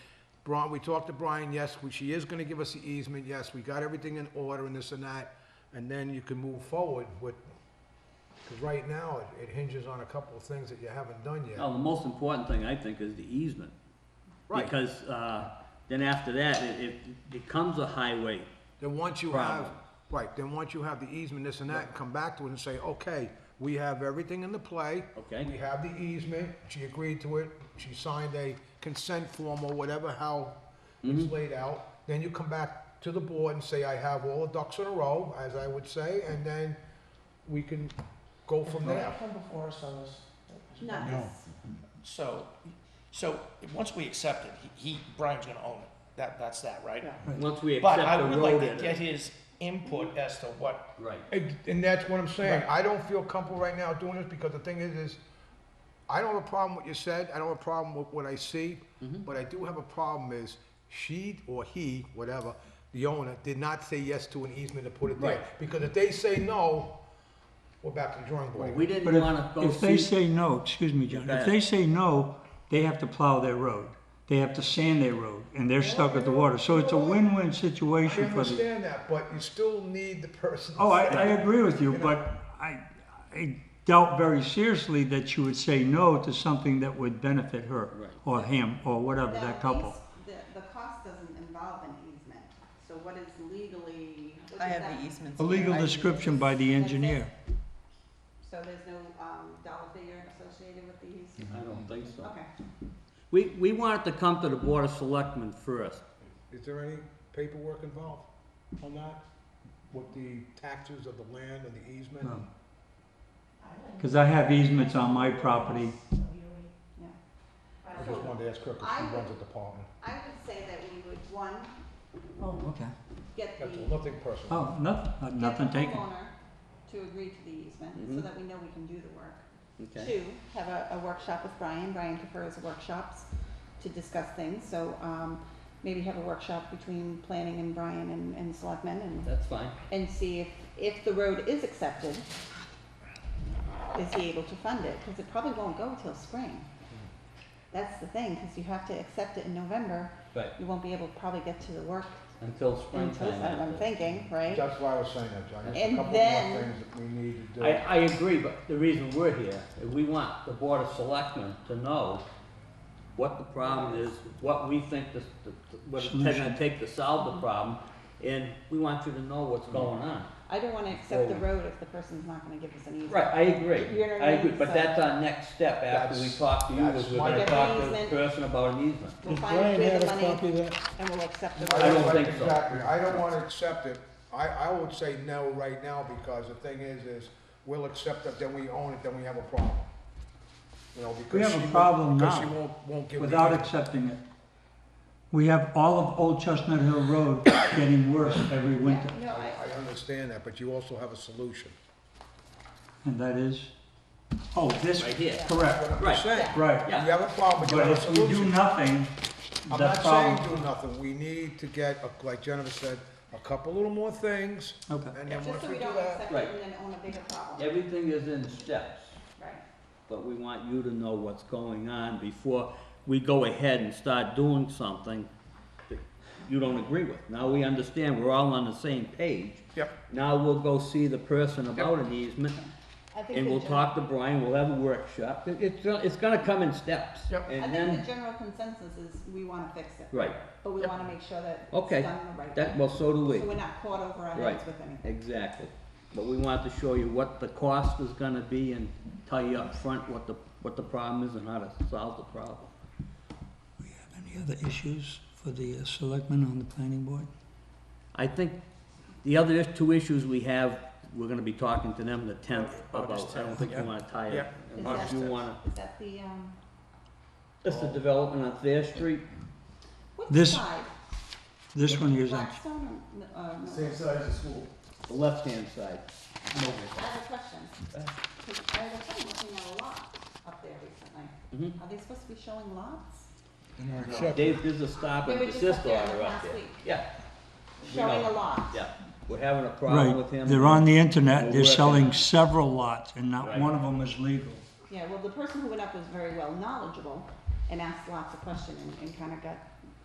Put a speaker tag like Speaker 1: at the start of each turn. Speaker 1: Brian, we talked to Brian, yes, we- she is gonna give us the easement, yes, we got everything in order and this and that, and then you can move forward with, because right now, it- it hinges on a couple of things that you haven't done yet.
Speaker 2: Well, the most important thing, I think, is the easement.
Speaker 1: Right.
Speaker 2: Because, uh, then after that, it, it becomes a highway.
Speaker 1: Then once you have,
Speaker 2: Problem.
Speaker 1: right, then once you have the easement, this and that, come back to it and say, okay, we have everything in the play.
Speaker 2: Okay.
Speaker 1: We have the easement, she agreed to it, she signed a consent form or whatever, how
Speaker 2: Mm-hmm.
Speaker 1: it's laid out. Then you come back to the board and say, I have all the ducks in a row, as I would say, and then we can go from
Speaker 3: Did
Speaker 1: there.
Speaker 3: that come before us on this?
Speaker 4: No.
Speaker 3: So, so, once we accept it, he, he- Brian's gonna own it, that, that's that, right?
Speaker 2: Once we
Speaker 3: But
Speaker 2: accept
Speaker 3: I
Speaker 2: the
Speaker 3: would like
Speaker 2: road
Speaker 3: to
Speaker 2: in
Speaker 3: get
Speaker 2: it.
Speaker 3: his input as to what,
Speaker 2: Right.
Speaker 1: And and that's what I'm saying, I don't feel comfortable right now doing this, because the thing is, is I don't have a problem with what you said, I don't have a problem with what I see,
Speaker 5: Mm-hmm.
Speaker 1: but I do have a problem is she or he, whatever, the owner, did not say yes to an easement to put it there.
Speaker 2: Right.
Speaker 1: Because if they say no, we're back to the drawing board.
Speaker 2: We didn't
Speaker 5: But if-
Speaker 2: wanna go
Speaker 5: if they
Speaker 2: see,
Speaker 5: say no, excuse me, John,
Speaker 2: Go
Speaker 5: if
Speaker 2: ahead.
Speaker 5: they say no, they have to plow their road. They have to sand their road, and they're stuck at the water. So it's a win-win
Speaker 1: I
Speaker 5: situation for the.
Speaker 1: understand that, but you still need the person. to
Speaker 5: Oh, I,
Speaker 1: say-
Speaker 5: I agree with you,
Speaker 1: You know.
Speaker 5: but I, I doubt very seriously that you would say no to something that would benefit her
Speaker 2: Right.
Speaker 5: or him or whatever,
Speaker 4: That
Speaker 5: that couple.
Speaker 4: eas- The, the cost doesn't involve an easement, so what is legally, what is
Speaker 6: I have
Speaker 4: that?
Speaker 6: the easements.
Speaker 5: A legal description by
Speaker 4: That's
Speaker 5: the
Speaker 4: it.
Speaker 5: engineer.
Speaker 4: So there's no, um, dollar figure associated with the easement?
Speaker 2: I don't think
Speaker 5: Mm-hmm.
Speaker 2: so.
Speaker 4: Okay.
Speaker 2: We, we wanted to come to the Board of Selectmen first.
Speaker 1: Is there any paperwork involved on that? With the taxes of the land and the easement?
Speaker 5: No. Cause I have easements on my property.
Speaker 4: Yeah.
Speaker 1: I just
Speaker 4: So
Speaker 1: wanted to ask her, because
Speaker 4: I
Speaker 1: she
Speaker 4: would-
Speaker 1: runs the department.
Speaker 4: I would say that we would, one,
Speaker 5: Oh, okay.
Speaker 4: get the,
Speaker 1: That's all,
Speaker 4: get
Speaker 1: nothing personal.
Speaker 5: Oh, nothing,
Speaker 4: the
Speaker 5: nothing taken. Mm-hmm.
Speaker 4: homeowner to agree to the easement, so
Speaker 2: Mhm.
Speaker 4: that we know we can do the work.
Speaker 2: Okay.
Speaker 4: Two, have a, a workshop with Brian. Brian prefers workshops to discuss things, so, um, maybe have a workshop between planning and Brian and, and selectmen and,
Speaker 2: That's fine.
Speaker 4: and see if, if the road is accepted, is he able to fund it? Cause it probably won't go till spring. That's the thing, cause you have to accept it in November.
Speaker 2: Right.
Speaker 4: You won't be able to probably get to the work
Speaker 2: Until
Speaker 4: until,
Speaker 2: springtime.
Speaker 4: I'm
Speaker 2: after.
Speaker 4: thinking,
Speaker 5: Oh.
Speaker 4: right?
Speaker 1: That's why I was saying that, John, there's a
Speaker 4: And
Speaker 1: couple more
Speaker 4: then-
Speaker 1: things that we need to do.
Speaker 2: I, I agree, but the reason we're here is we want the Board of Selectmen to know what the problem is, what we think this, the- the- what it's gonna
Speaker 5: Solution.
Speaker 2: take to solve the problem, and we want you to know what's
Speaker 1: Mm-hmm.
Speaker 2: going on.
Speaker 4: I don't wanna accept the
Speaker 2: Well-
Speaker 4: road if the person's not gonna give us an easement.
Speaker 2: Right, I agree,
Speaker 4: You know what I
Speaker 2: I agree,
Speaker 4: mean?
Speaker 2: but
Speaker 4: So-
Speaker 2: that's our next step after we
Speaker 1: That's-
Speaker 2: talk to you,
Speaker 1: that's
Speaker 2: is we're
Speaker 1: my-
Speaker 2: gonna
Speaker 4: Get the
Speaker 2: talk to the
Speaker 4: easement.
Speaker 2: person about an easement.
Speaker 4: We'll find where the money-
Speaker 5: that?
Speaker 4: And we'll accept the
Speaker 1: I
Speaker 4: road.
Speaker 2: don't
Speaker 1: like-
Speaker 2: think so.
Speaker 1: Exactly, I don't wanna accept it, I, I would say no right now, because the thing is, is we'll accept it, then we own it, then we have a problem. You know, because
Speaker 5: We have
Speaker 1: she
Speaker 5: a
Speaker 1: won't-
Speaker 5: problem
Speaker 1: because
Speaker 5: now
Speaker 1: she won't, won't give. the-
Speaker 5: Without accepting it. We have all of Old Chestnut Hill Road getting worse every winter,
Speaker 4: Yeah, No,
Speaker 1: I,
Speaker 4: I,
Speaker 1: I understand that, but you also have a solution.
Speaker 5: and that is, oh, this,
Speaker 2: Right here.
Speaker 5: correct,
Speaker 1: I'm
Speaker 2: Right.
Speaker 1: saying,
Speaker 5: right.
Speaker 1: you have a problem, but you
Speaker 5: But
Speaker 1: have a
Speaker 5: if we do
Speaker 1: solution.
Speaker 5: nothing,
Speaker 1: I'm
Speaker 5: the
Speaker 1: not saying
Speaker 5: problem.
Speaker 1: do nothing, we need to get, a- like Jennifer said, a couple little more things,
Speaker 5: Okay.
Speaker 1: and then
Speaker 4: just
Speaker 1: once
Speaker 4: so
Speaker 1: we
Speaker 4: we
Speaker 1: do
Speaker 4: don't
Speaker 1: that,
Speaker 4: accept
Speaker 2: Right.
Speaker 4: it and then own a bigger problem,
Speaker 2: Everything is in steps,
Speaker 4: right?
Speaker 2: but we want you to know what's going on before we go ahead and start doing something that you don't agree with. Now we understand, we're all on the same page.
Speaker 1: Yep.
Speaker 2: Now we'll go see the person about an easement,
Speaker 4: I think
Speaker 2: and
Speaker 4: the
Speaker 2: we'll
Speaker 4: gen-
Speaker 2: talk to Brian, we'll have a workshop, It- it's, gonna- it's gonna come in steps.
Speaker 1: Yep.
Speaker 4: I
Speaker 2: And
Speaker 4: think the
Speaker 2: then,
Speaker 4: general consensus is we wanna fix it.
Speaker 2: right,
Speaker 4: But we wanna make sure that it's done
Speaker 2: okay,
Speaker 4: the right
Speaker 2: that,
Speaker 4: way.
Speaker 2: well, so do we,
Speaker 4: So we're not caught over our
Speaker 2: Right.
Speaker 4: heads with anything.
Speaker 2: exactly. But we want to show you what the cost is gonna be and tell you up front what the, what the problem is and how to solve the problem.
Speaker 5: Any other issues for the uh, selectmen on the planning board?
Speaker 2: I think the other is- two issues we have, we're gonna be talking to them the tenth about,
Speaker 3: August
Speaker 2: I don't think you
Speaker 3: 10th,
Speaker 2: wanna tie it.
Speaker 1: Yeah.
Speaker 2: Unless
Speaker 4: August
Speaker 2: you
Speaker 3: 10th.
Speaker 2: wanna,
Speaker 4: Is that the, um,
Speaker 2: it's the development on Thayer Street,
Speaker 4: what
Speaker 5: This-
Speaker 4: side?
Speaker 5: This one here is on,
Speaker 4: Blackstone or, n- uh, no?
Speaker 3: size as school.
Speaker 2: the left-hand side.
Speaker 4: I have a question. 'Cause I have a friend looking at a lot up there recently.
Speaker 2: Mhm.
Speaker 4: Are they supposed to be showing lots?
Speaker 2: Dave, there's a stop
Speaker 4: They
Speaker 2: and
Speaker 4: were just up
Speaker 2: desist
Speaker 4: there
Speaker 2: order up
Speaker 4: last
Speaker 2: there.
Speaker 4: week.
Speaker 2: Yeah,
Speaker 4: Showing
Speaker 2: know.
Speaker 4: a lot.
Speaker 2: yeah, we're having a problem
Speaker 5: right,
Speaker 2: with him.
Speaker 5: they're on the
Speaker 2: We'll
Speaker 5: internet, they're
Speaker 2: work it
Speaker 5: selling
Speaker 2: out.
Speaker 5: several lots, and not
Speaker 2: Right.
Speaker 5: one of them is legal.
Speaker 4: Yeah, well, the person who went up was very well knowledgeable and asked lots of questions and, and kinda got